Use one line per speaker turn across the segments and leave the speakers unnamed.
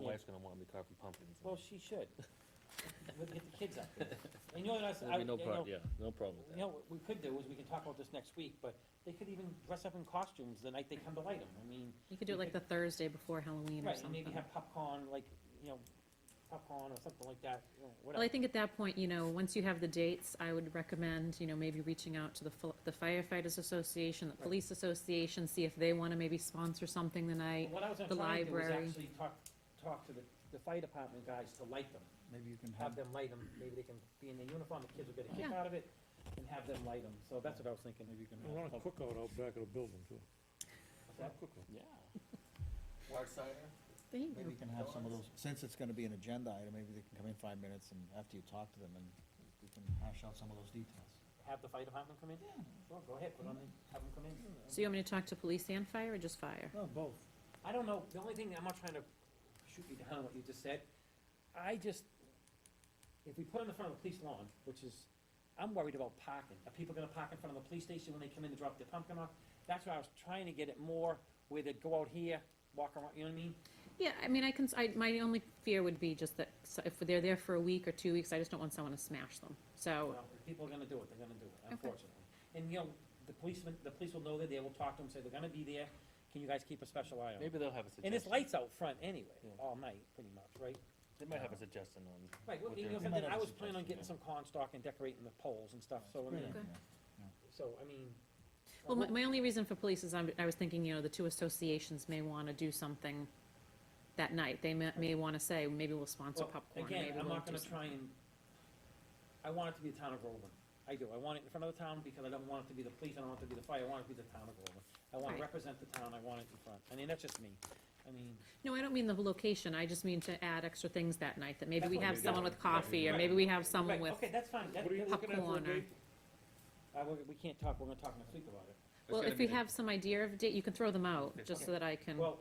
wife's gonna want me carving pumpkins.
Well, she should. We'll get the kids up there. And you know, that's,
There'll
I,
be
you
no
know,
problem, yeah, no problem with
you
that.
know, what we could do is, we can talk about this next week, but they could even dress up in costumes the night they come to light them, I mean,
You could do it like the Thursday before Halloween or
right, and
something.
maybe have popcorn, like, you know, popcorn or something like that, you know,
Well, I
whatever.
think at that point, you know, once you have the dates, I would recommend, you know, maybe reaching out to the fil- the firefighters association, the
Right.
police association, see if they wanna maybe sponsor something the night.
What I was gonna
the
try to do is
library.
actually talk, talk to the, the fire department guys to light them,
Maybe you can
have
have,
them light them, maybe they can be in their uniform, the kids will get a kick
Yeah.
out of it, and have them light them, so that's what I was thinking.
maybe you can
I want
have.
a cookout out back of the building too.
That-
Cookout.
Yeah.
Hard cider?
There you
Maybe
go.
you can have some of
Donuts.
those, since it's gonna be an agenda item, maybe they can come in five minutes and after you talk to them and we can hash out some of those details.
Have the fire department come in? Yeah. Sure, go ahead, put on the, have them come in.
So you want me to talk to police and fire or just fire?
No, both.
I don't know, the only thing, I'm not trying to shoot you down on what you just said, I just, if we put on the front of the police lawn, which is, I'm worried about parking, are people gonna park in front of the police station when they come in to drop their pumpkin off? That's why I was trying to get it more where they'd go out here, walk around, you know what I mean?
Yeah, I mean, I can, s- I, my only fear would be just that so if they're there for a week or two weeks, I just don't want someone to smash them. So,
Well, if people are gonna do it, they're gonna do it, unfortunately. And, you know, the policemen, the police will know they're there, we'll talk to them, say they're gonna be there, can you guys keep a special eye on them?
Maybe they'll have a suggestion.
And it's lights out front anyway,
Yeah.
all night, pretty much, right?
They might have a suggestion on.
Right, well,
what
you
they're
know,
doing.
something,
might
I
have a
was planning on getting some
suggestion,
corn stalk and decorating the poles and stuff, so, I mean,
idea.
so, I mean.
well, my, my only reason for police is I'm, I was thinking, you know, the two associations may wanna do something that night. They may, may wanna say, maybe we'll sponsor
Well,
popcorn, maybe
Again,
we'll
I'm not
do
gonna
something.
try and, I want it to be the town of Groveland, I do, I want it in front of the town, because I don't want it to be the police, I don't want it to be the fire, I want it to be the town of Groveland. I wanna
Right.
represent the town, I want it in front, I mean, that's just me, I mean,
No, I don't mean the location, I just mean to add extra things that night, that maybe
That's
we
what
have
we
someone
do.
with coffee, or
Right.
maybe we have someone
right,
with,
okay, that's fine, that,
What are you
that-
looking at for a
popcorn or-
date?
I, we we can't talk, we're gonna talk next week about it.
well, if you have some idea of date, you can throw them out, just so that I can,
Well,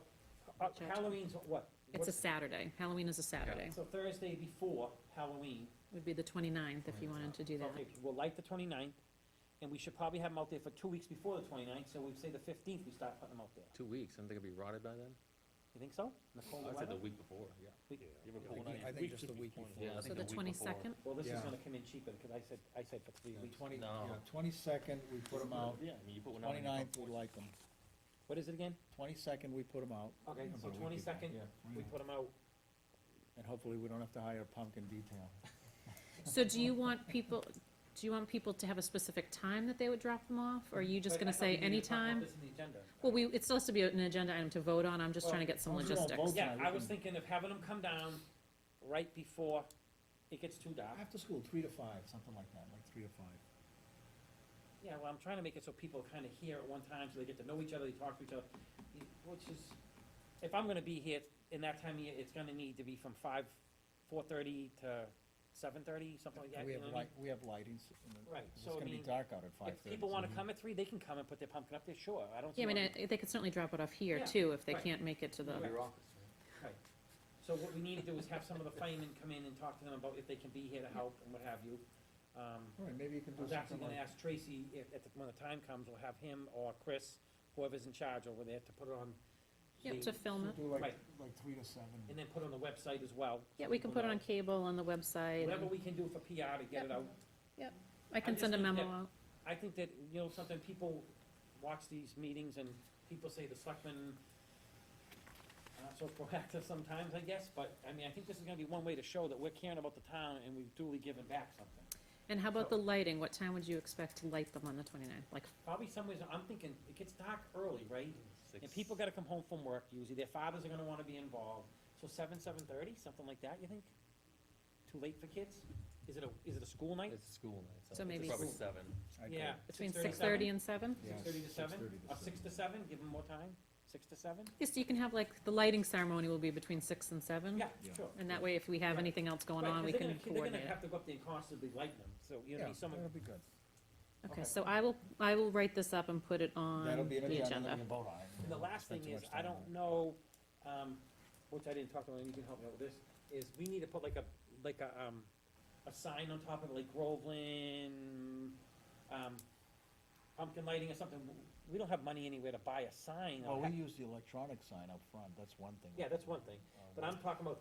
uh,
Judge.
Halloween's what?
it's a
What's-
Saturday, Halloween is a Saturday,
So Thursday before Halloween,
would be the 29th if you wanted to do that.
Okay, we'll light the 29th, and we should probably have them out there for two weeks before the 29th, so we say the fifteenth, we start putting them out there.
Two weeks, and they're gonna be rotted by then?
You think so? In the cold
I'd say the
weather?
week before, yeah.
We-
I think just the week
Yeah, I think
So the
the week before.
twenty-second,
Well, this is
Yeah.
gonna come in cheaper, because I said, I said for three weeks.
Twenty,
No.
yeah, twenty-second, we put them out,
Yeah, I mean, you put one out. and you
twenty-ninth,
put-
we like them,
What is it again?
twenty-second, we put them out.
Okay,
About a
so
week ago.
twenty-second,
Yeah,
we
Hmm.
29th.
put them out.
And hopefully we don't have to hire a pumpkin detail.
so do you want people, do you want people to have a specific time that they would drop them off, or are you just
But I
gonna
thought we
say
needed to talk about
anytime?
this in the agenda.
Well, we, it's supposed to be an agenda item to vote on, I'm just
Well,
trying to get some
as long as we don't
logistics.
vote
Yeah,
tonight, we
I was
can-
thinking of having them come down right before it gets too dark.
After school, three to five, something like that, like three to five.
Yeah, well, I'm trying to make it so people kind of hear at one time, so they get to know each other, they talk to each other, y- which is, if I'm gonna be here in that time of year, it's gonna need to be from five, four-thirty to seven-thirty, something like that,
We
you
have
know what I
light,
mean?
we have lightings, and it-
Right,
it's
so I
gonna be
mean,
dark out at five
If
thirty. Mm-hmm.
people wanna come at three, they can come and put their pumpkin up there, sure, I don't see
Yeah, I
why.
mean, I- they could certainly drop it off here
Yeah,
too, if they
right.
can't make it to the,
Right.
Your office, right?
So what we need to do is have some of the firemen come in and talk to them about if they can be here to help and what have you. Um,
All right, maybe you can
I
do
was actually
something
gonna
like,
ask Tracy if, at the, when the time comes, we'll have him or Chris, whoever's in charge over there, to put it on.
yeah,
the-
to film it.
do like,
Right.
like three to seven.
And then put it on the website as well. so
Yeah, we can
people
put it on
know.
cable, on the website,
Whatever
and
we can do for PR to get it out.
I can
just
send a
think
memo
that-
out.
I think that, you know, sometimes people watch these meetings and people say the selectmen are not so proactive sometimes, I guess, but, I mean, I think this is gonna be one way to show that we're caring about the town and we've duly given back something.
And how about the lighting? What time would you expect to light them on the 29th? Like,
Probably some ways, I'm thinking, it gets dark early, right? And
Six-
people gotta come home from work usually, their fathers are gonna wanna be involved, so seven, seven-thirty, something like that, you think? Too late for kids? Is it a, is it a school night?
It's a school night, so.
So
it's
maybe-
Probably
School.
seven.
I'd
Yeah.
go-
between
6:30,
6:30 and 7?
yeah,
Six thirty to seven,
6:30
or six to seven, give them more time, six to seven?
Yes, you can have, like, the lighting ceremony will be between 6 and 7?
Yeah,
Yeah.
sure.
And that way, if we have
Right.
anything else going
Right,
on,
'cause
we
they're
can
gonna- They're
coordinate
gonna
it.
have to go up there and constantly light them, so, you know,
Yeah,
be someone,
that'll be good.
Okay,
okay.
so I will, I will write this up and put it
That'll
on
be an
the
agenda that
agenda.
we can vote on.
and the last
Spend
thing
too
is,
much
I
time on
don't
it.
know, um, which I didn't talk to, and you can help me out with this, is we need to put like a, like a, um, a sign on top of like Groveland, um, pumpkin lighting or something, we don't have money anywhere to buy a sign. or
Well, Oh, we
ha-
use the electronic sign up front, that's one thing.
Yeah, that's one thing,
Um,
but I'm talking about